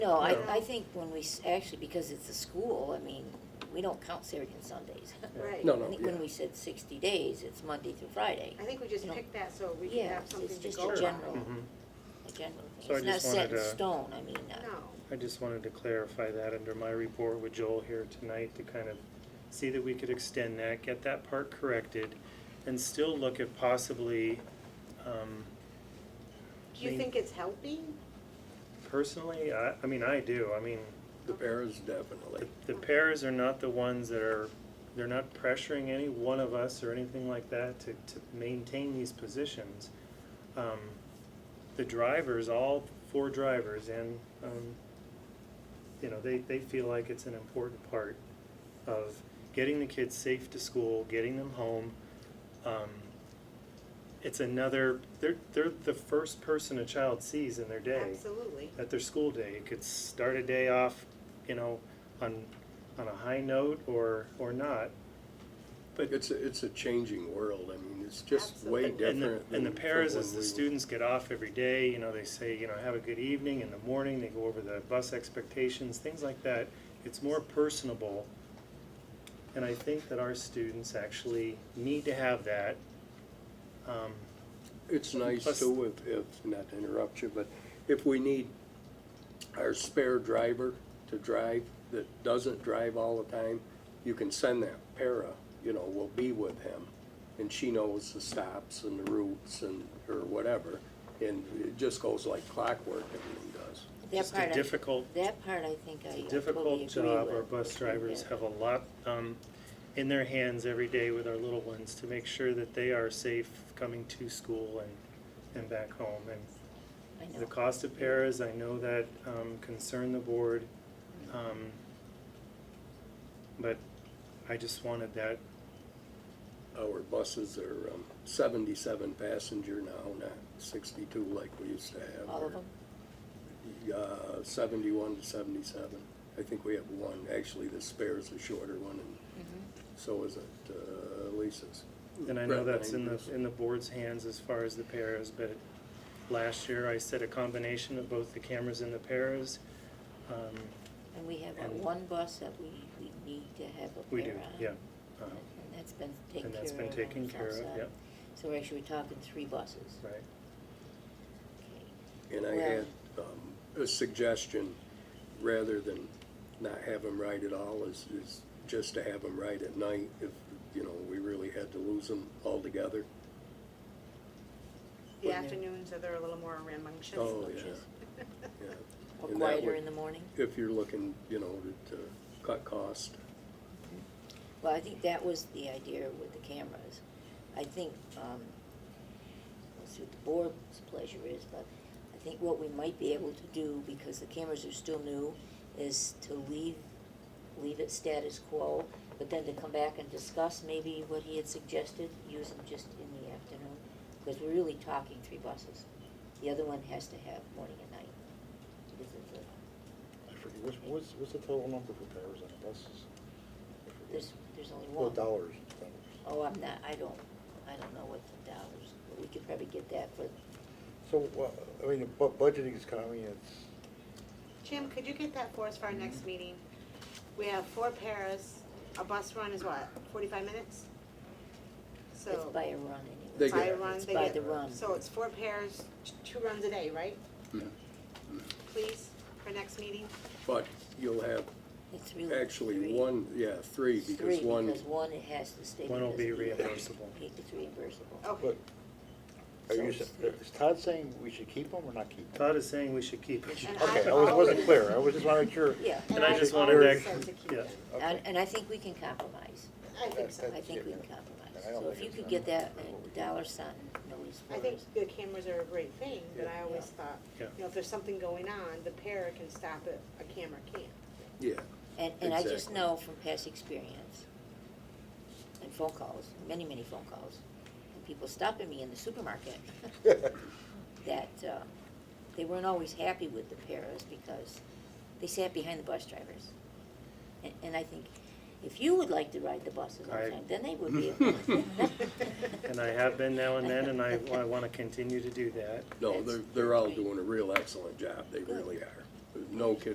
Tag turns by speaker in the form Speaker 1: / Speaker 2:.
Speaker 1: No, I,
Speaker 2: Yeah.
Speaker 1: I think when we, s- actually, because it's a school, I mean, we don't count Saturdays and Sundays.
Speaker 2: Right.
Speaker 3: No,
Speaker 1: I
Speaker 3: no,
Speaker 1: think when
Speaker 3: yeah.
Speaker 1: we said sixty days, it's Monday through Friday.
Speaker 2: I think we just
Speaker 1: You know,
Speaker 2: picked that so we could
Speaker 1: Yeah,
Speaker 2: have
Speaker 1: it's-
Speaker 2: something
Speaker 1: it's
Speaker 2: to
Speaker 1: just
Speaker 2: go
Speaker 1: a
Speaker 2: by.
Speaker 1: general,
Speaker 4: Mhm.
Speaker 1: a general thing.
Speaker 4: So I
Speaker 1: It's not
Speaker 4: just
Speaker 1: set in
Speaker 4: wanted to-
Speaker 1: stone, I mean, uh,
Speaker 2: No,
Speaker 4: I just wanted to clarify that under my report with Joel here tonight to kind of see that we could extend that, get that part corrected, and still look at possibly, um,
Speaker 2: do you
Speaker 4: Me.
Speaker 2: think it's helping?
Speaker 4: personally, I, I mean, I do, I mean,
Speaker 3: The parents
Speaker 4: the,
Speaker 3: definitely.
Speaker 4: the pairs are not the ones that are, they're not pressuring any one of us or anything like that to, to maintain these positions. Um, the drivers, all four drivers, and, um, you know, they, they feel like it's an important part of getting the kids safe to school, getting them home. Um, it's another, they're, they're the first person a child sees in their day
Speaker 2: Absolutely.
Speaker 4: at their school day. It could start a day off, you know, on on a high note or or not.
Speaker 3: But it's, a- it's a changing world. I mean, it's just way
Speaker 4: And
Speaker 2: Absolutely.
Speaker 3: different.
Speaker 4: the, and the
Speaker 3: than
Speaker 4: pairs,
Speaker 3: from
Speaker 4: as
Speaker 3: when
Speaker 4: the
Speaker 3: we-
Speaker 4: students get off every day, you know, they say, you know, have a good evening in the morning. They go over the bus expectations, things like that. It's more personable. And I think that our students actually need to have that. Um,
Speaker 3: It's nice
Speaker 4: Plus-
Speaker 3: too, if, if, not to interrupt you, but if we need our spare driver to drive, that doesn't drive all the time, you can send that para, you know, will be with him. And she knows the stops and the routes and, or whatever. And it just goes like clockwork, everything does.
Speaker 1: that
Speaker 4: just
Speaker 1: part,
Speaker 4: a
Speaker 1: I-
Speaker 4: difficult
Speaker 1: that part I think I I
Speaker 4: It's
Speaker 1: totally
Speaker 4: a
Speaker 1: agree
Speaker 4: difficult
Speaker 1: with.
Speaker 4: job. Our bus
Speaker 1: with
Speaker 4: drivers
Speaker 1: that.
Speaker 4: have a lot um, in their hands every day with our little ones to make sure that they are safe coming to school and, and back home. And
Speaker 1: I know.
Speaker 4: the cost of paras, I know that um, concern the board. um, But I just wanted that,
Speaker 3: Our buses are um, seventy-seven passenger now, not sixty-two like we used to have.
Speaker 1: All of them?
Speaker 3: Uh, seventy-one to seventy-seven. I think we have one, actually the spare is the shorter one, and
Speaker 2: Mm-hmm.
Speaker 3: so is it uh, Lisa's.
Speaker 4: and I know
Speaker 3: Brett
Speaker 4: that's in the,
Speaker 3: Langer's.
Speaker 4: in the board's hands as far as the paras, but last year I said a combination of both the cameras and the paras. um,
Speaker 1: And we have our
Speaker 4: And-
Speaker 1: one bus that we, we need to have a
Speaker 4: We
Speaker 1: pair
Speaker 4: do,
Speaker 1: on.
Speaker 4: yeah.
Speaker 1: And
Speaker 4: Um,
Speaker 1: and that's been taken care of.
Speaker 4: And that's been
Speaker 1: on
Speaker 4: taken
Speaker 1: the
Speaker 4: care of,
Speaker 1: outside.
Speaker 4: yep.
Speaker 1: So we're actually talking three buses.
Speaker 4: Right.
Speaker 1: Okay.
Speaker 3: And I
Speaker 1: Well-
Speaker 3: had um, a suggestion, rather than not have them ride at all, is, is just to have them ride at night if, you know, we really had to lose them altogether.
Speaker 2: The
Speaker 1: Yeah.
Speaker 2: afternoons are they're a little more rambunctious.
Speaker 3: Oh, yeah, yeah.
Speaker 1: Or
Speaker 3: And that
Speaker 1: quieter
Speaker 3: would-
Speaker 1: in the morning.
Speaker 3: if you're looking, you know, to, to cut cost.
Speaker 1: Well, I think that was the idea with the cameras. I think, um, we'll see what the board's pleasure is, but I think what we might be able to do, because the cameras are still new, is to leave, leave it status quo, but then to come back and discuss maybe what he had suggested, use them just in the afternoon, because we're really talking three buses. The other one has to have morning and night. because of the-
Speaker 5: I forget, what's, what's, what's the total number for pairs on the buses? I forget.
Speaker 1: There's, there's only
Speaker 5: Well,
Speaker 1: one.
Speaker 5: dollars,
Speaker 1: Oh,
Speaker 5: dollars.
Speaker 1: I'm not, I don't, I don't know what the dollars, but we could probably get that for,
Speaker 5: So, uh, I mean, bu- budgeting is kind of, I mean, it's,
Speaker 2: Jim, could you get that for us for our
Speaker 1: Mm-hmm.
Speaker 2: next meeting? We have four pairs, a bus run is what, forty-five minutes?
Speaker 1: it's
Speaker 2: So,
Speaker 1: by a run
Speaker 3: They
Speaker 1: anyway.
Speaker 3: get-
Speaker 2: by a run,
Speaker 1: It's
Speaker 2: they
Speaker 1: by
Speaker 2: get-
Speaker 1: the run.
Speaker 2: So it's four pairs, t- two runs a day, right? Please, for next meeting?
Speaker 3: But you'll have
Speaker 1: It's really
Speaker 3: actually
Speaker 1: three.
Speaker 3: one, yeah, three,
Speaker 1: It's
Speaker 3: because
Speaker 1: three,
Speaker 3: one,
Speaker 1: because one it has to stay.
Speaker 4: One will
Speaker 1: because
Speaker 4: be
Speaker 1: it-
Speaker 4: reimbursable.
Speaker 1: it- It's reimbursable.
Speaker 2: Okay,
Speaker 5: but, are
Speaker 1: So
Speaker 5: you,
Speaker 1: it's
Speaker 5: s-
Speaker 1: three.
Speaker 5: is Todd saying we should keep them or not keep them?
Speaker 4: Todd is saying we should keep it.
Speaker 2: And
Speaker 5: Okay, I was, wasn't clear, I was just wanting to make sure.
Speaker 1: Yeah,
Speaker 4: And I
Speaker 2: I
Speaker 4: just
Speaker 2: always
Speaker 4: wanted to,
Speaker 2: said to keep
Speaker 4: yeah,
Speaker 2: it.
Speaker 1: and,
Speaker 5: Okay.
Speaker 1: and I think we can compromise.
Speaker 2: I think so.
Speaker 1: I
Speaker 5: That's
Speaker 1: think we
Speaker 5: it.
Speaker 1: can compromise.
Speaker 5: I don't
Speaker 1: So if
Speaker 5: think
Speaker 1: you
Speaker 5: it's
Speaker 1: could
Speaker 5: gonna
Speaker 1: get that
Speaker 5: be-
Speaker 1: uh, dollar sign notice for
Speaker 2: I think
Speaker 1: us.
Speaker 2: the cameras are a great thing, but I always thought,
Speaker 4: Yeah.
Speaker 2: you know, if there's something going on, the para can stop it, a camera can't.
Speaker 3: yeah,
Speaker 1: And, and I just
Speaker 3: Exactly.
Speaker 1: know from past experience and phone calls, many, many phone calls, and people stopping me in the supermarket, that uh, they weren't always happy with the paras because they sat behind the bus drivers. And, and I think, if you would like to ride the buses all the
Speaker 4: I-
Speaker 1: time, then they would be. able to.
Speaker 4: and I have been now and then, and I, I wanna continue to do that.
Speaker 3: no,
Speaker 1: That's-
Speaker 3: they're, they're all
Speaker 1: that's right.
Speaker 3: doing a real excellent job, they really are. No kidding